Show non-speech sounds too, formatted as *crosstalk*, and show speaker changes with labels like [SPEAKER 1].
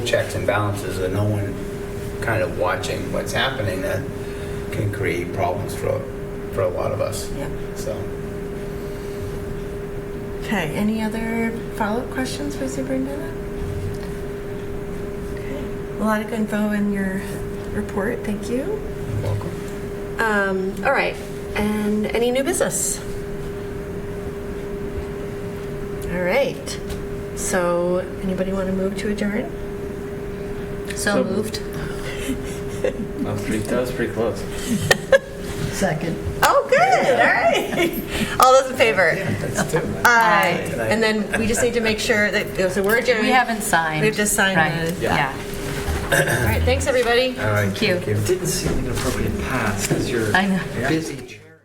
[SPEAKER 1] checks and balances and no one kind of watching what's happening, that can create problems for, for a lot of us.
[SPEAKER 2] Yeah.
[SPEAKER 1] So,
[SPEAKER 2] Okay, any other follow-up questions for Superintendent? Okay. A lot of good info in your report, thank you.
[SPEAKER 1] welcome.
[SPEAKER 3] Um, all right. And any new business? All right. So, anybody want to move to adjourn?
[SPEAKER 4] So moved. That was pretty, that was pretty close.
[SPEAKER 5] Second.
[SPEAKER 3] Oh, good. All right. *laughs* All those in favor?
[SPEAKER 1] That's two.
[SPEAKER 3] Aye.
[SPEAKER 1] Aye.
[SPEAKER 3] And then we just need to make sure that so we're adjourned.
[SPEAKER 4] We haven't signed.
[SPEAKER 3] We've just signed
[SPEAKER 4] Right.
[SPEAKER 3] the-
[SPEAKER 4] Yeah.
[SPEAKER 3] All right. Thanks, everybody.
[SPEAKER 1] All right,
[SPEAKER 4] you.
[SPEAKER 1] thank you.
[SPEAKER 6] It didn't seem an appropriate pass because you're
[SPEAKER 4] I know.
[SPEAKER 5] Busy.